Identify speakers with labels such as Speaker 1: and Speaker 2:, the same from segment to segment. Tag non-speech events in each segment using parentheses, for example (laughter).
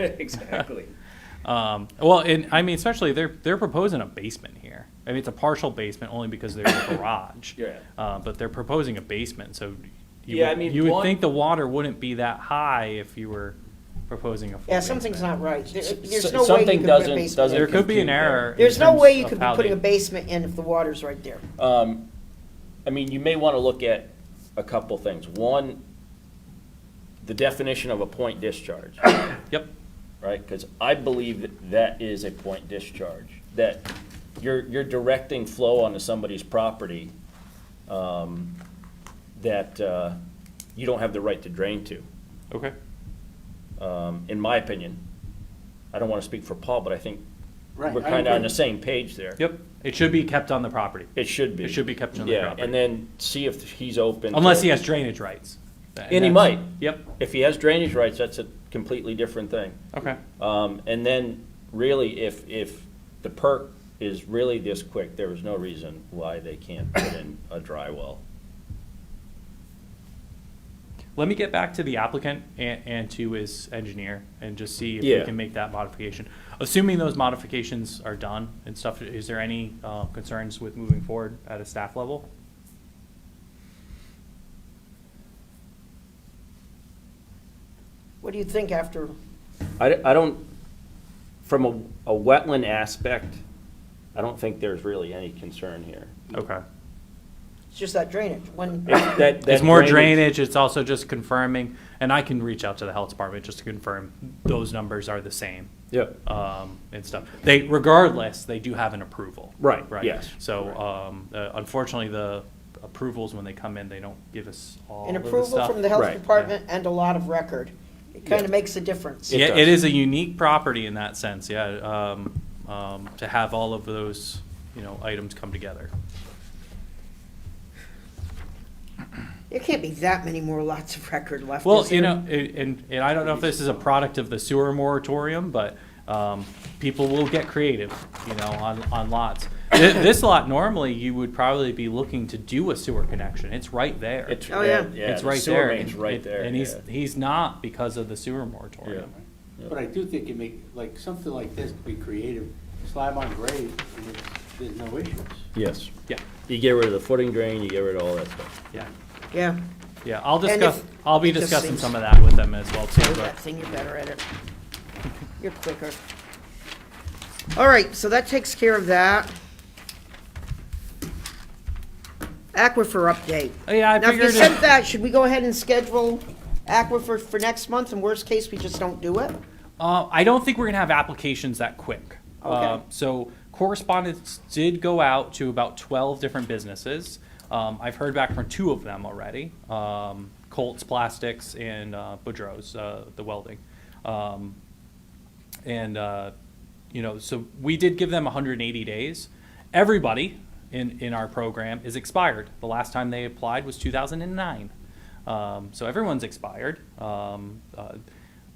Speaker 1: (laughs)
Speaker 2: Exactly.
Speaker 3: Um, well, and I mean, especially they're they're proposing a basement here. I mean, it's a partial basement only because
Speaker 2: (coughs)
Speaker 3: there's a garage.
Speaker 2: Yeah.
Speaker 3: Uh, but they're proposing a basement, so you
Speaker 2: Yeah,
Speaker 3: would,
Speaker 2: I mean,
Speaker 3: you would
Speaker 2: one-
Speaker 3: think the water wouldn't be that high if you were proposing a full
Speaker 4: Yeah, something's
Speaker 3: basement.
Speaker 4: not right. There-
Speaker 1: S-
Speaker 4: There's
Speaker 1: s-
Speaker 4: no way you
Speaker 1: something
Speaker 4: could put a
Speaker 1: doesn't-
Speaker 4: basement
Speaker 1: doesn't
Speaker 3: There
Speaker 4: in.
Speaker 3: could be an
Speaker 1: Compute
Speaker 3: error. in
Speaker 4: There's no
Speaker 3: terms
Speaker 4: way you
Speaker 3: of
Speaker 4: could be
Speaker 3: how
Speaker 4: putting
Speaker 3: they-
Speaker 4: a basement in if the water's right there.
Speaker 1: Um, I mean, you may want to look at a couple things. One, the definition of a point discharge, (coughs)
Speaker 3: Yep.
Speaker 1: right? Because I believe that that is a point discharge, that you're, you're directing flow onto somebody's property um, that uh, you don't have the right to drain to,
Speaker 3: Okay.
Speaker 1: um, in my opinion. I don't want to speak for Paul, but I think
Speaker 4: Right,
Speaker 1: we're
Speaker 4: I
Speaker 1: kind of on
Speaker 4: agree.
Speaker 1: the same page there.
Speaker 3: Yep. It should be kept on the property,
Speaker 1: It should be.
Speaker 3: It should be kept on the
Speaker 1: Yeah,
Speaker 3: property.
Speaker 1: and then see if he's open. to-
Speaker 3: unless he has drainage rights.
Speaker 1: And he
Speaker 3: that's-
Speaker 1: might.
Speaker 3: Yep.
Speaker 1: If he has drainage rights, that's a completely different thing.
Speaker 3: Okay.
Speaker 1: Um, and then really, if, if the perk is really this quick, there is no reason why they can't put in a dry well.
Speaker 3: Let me get back to the applicant and, and to his engineer and just see if
Speaker 1: Yeah.
Speaker 3: we can make that modification. Assuming those modifications are done and stuff, is there any uh, concerns with moving forward at a staff level?
Speaker 4: What do you think after,
Speaker 1: I, I don't, from a, a wetland aspect, I don't think there's really any concern here.
Speaker 3: Okay.
Speaker 4: it's just that drainage, when,
Speaker 1: It's that-
Speaker 3: It's
Speaker 1: that
Speaker 3: more drainage, it's also just confirming, and I can reach out to the health department just to confirm those numbers are the same.
Speaker 1: Yep.
Speaker 3: um, and stuff. They, regardless, they do have an approval.
Speaker 1: Right,
Speaker 3: Right.
Speaker 1: yes.
Speaker 3: So, um, uh, unfortunately, the approvals, when they come in, they don't give us all
Speaker 4: an
Speaker 3: of the
Speaker 4: approval
Speaker 3: stuff.
Speaker 4: from the health
Speaker 1: Right, yeah.
Speaker 4: department and a lot of record. It kind
Speaker 1: Yeah.
Speaker 4: of makes a difference.
Speaker 1: It
Speaker 3: Yeah,
Speaker 1: does.
Speaker 3: it is a unique property in that sense, yeah, um, um, to have all of those, you know, items come together.
Speaker 4: There can't be that many more lots of record left,
Speaker 3: Well,
Speaker 4: is
Speaker 3: you
Speaker 4: there?
Speaker 3: know, a- and, and I don't know if this is a product of the sewer moratorium, but, um, people will get creative, you know, on, on lots. Thi- This lot, normally, you would probably be looking to do a sewer connection, it's right there.
Speaker 1: It's,
Speaker 4: Oh, yeah.
Speaker 1: yeah, yeah,
Speaker 3: It's
Speaker 1: the
Speaker 3: right
Speaker 1: sewer
Speaker 3: there.
Speaker 1: main's
Speaker 3: and-
Speaker 1: right
Speaker 3: and-
Speaker 1: there,
Speaker 3: And he's,
Speaker 1: yeah.
Speaker 3: he's not because of the sewer moratorium.
Speaker 1: Yeah.
Speaker 5: But I do think it make, like, something like this, be creative, slab on grade, and it's, there's no issues.
Speaker 1: Yes.
Speaker 3: Yeah,
Speaker 1: You get rid of the footing drain, you get rid of all that stuff.
Speaker 3: yeah,
Speaker 4: Yeah,
Speaker 3: yeah. I'll
Speaker 4: And
Speaker 3: discuss,
Speaker 4: if-
Speaker 3: I'll be
Speaker 4: it just
Speaker 3: discussing
Speaker 4: seems-
Speaker 3: some of that with them as well too,
Speaker 4: do
Speaker 3: but
Speaker 4: that thing, you're better at it. You're quicker. All right, so that takes care of that. Aquifer update.
Speaker 3: Oh, yeah, I
Speaker 4: Now, if you
Speaker 3: figured,
Speaker 4: sent
Speaker 3: it-
Speaker 4: that, should we go ahead and schedule aquifer for next month, and worst case, we just don't do it?
Speaker 3: uh, I don't think we're gonna have applications that quick.
Speaker 4: Okay.
Speaker 3: Um, So correspondence did go out to about twelve different businesses. Um, I've heard back from two of them already, um, Colts Plastics and, uh, Boudreaux's, uh, the welding. Um, and uh, you know, so we did give them 180 days. Everybody in in our program is expired. The last time they applied was 2009, um, so everyone's expired. Um, uh,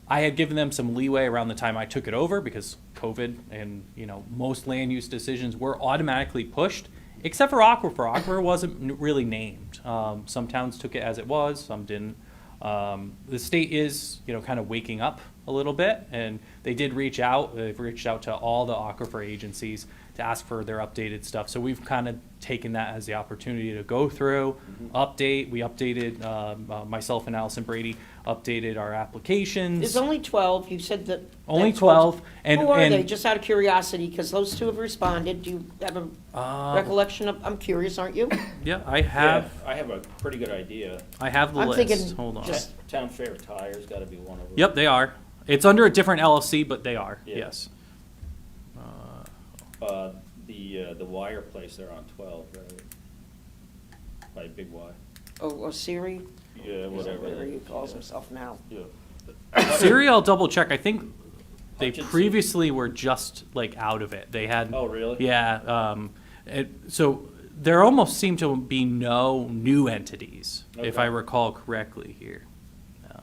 Speaker 3: I had given them some leeway around the time I took it over because COVID and you know most land use decisions were automatically pushed, except for aquifer. Aquifer wasn't n- really named. Um, some towns took it as it was, some didn't. Um, the state is, you know, kind of waking up a little bit, and they did reach out. They've reached out to all the aquifer agencies to ask for their updated stuff. So we've kind of taken that as the opportunity to go through, update. We updated um, uh, myself and Allison Brady updated our applications.
Speaker 4: There's only 12, you said that.
Speaker 3: Only
Speaker 4: that
Speaker 3: 12, and-
Speaker 4: Who are
Speaker 3: and-
Speaker 4: they, just out of curiosity, because those two have responded, do you have a
Speaker 3: Uh,
Speaker 4: recollection of, I'm curious,
Speaker 3: (coughs)
Speaker 4: aren't you?
Speaker 3: yeah, I have.
Speaker 1: Yeah, I have a pretty good idea.
Speaker 3: I have the
Speaker 4: I'm
Speaker 3: list.
Speaker 4: thinking
Speaker 3: Hold on.
Speaker 4: just-
Speaker 1: Town Fair Tire's gotta be one of them.
Speaker 3: Yep, they are. It's under a different LLC, but they are.
Speaker 1: Yeah.
Speaker 3: Yes.
Speaker 1: Uh, the, uh, the wire place there on twelve, right? By Big Y.
Speaker 4: Oh, Siri,
Speaker 1: Yeah,
Speaker 4: whatever he calls himself now.
Speaker 3: Siri, I'll double check. I think they
Speaker 1: Hutchinson.
Speaker 3: previously were just like out of it. They had.
Speaker 1: Oh, really?
Speaker 3: Yeah. Um, it, so there almost seem to be no new entities, if
Speaker 1: Okay.
Speaker 3: I recall correctly here. Uh,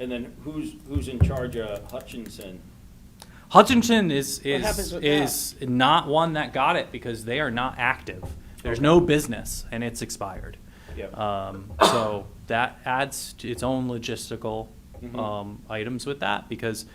Speaker 1: And then who's, who's in charge of Hutchinson?
Speaker 3: Hutchinson is
Speaker 4: happens
Speaker 3: is
Speaker 4: with
Speaker 3: is not one that got it because they are not active. There's no business and it's expired.
Speaker 1: Yep.
Speaker 3: Um,
Speaker 1: Mm-hmm.
Speaker 3: so that adds to its own logistical um, items with that because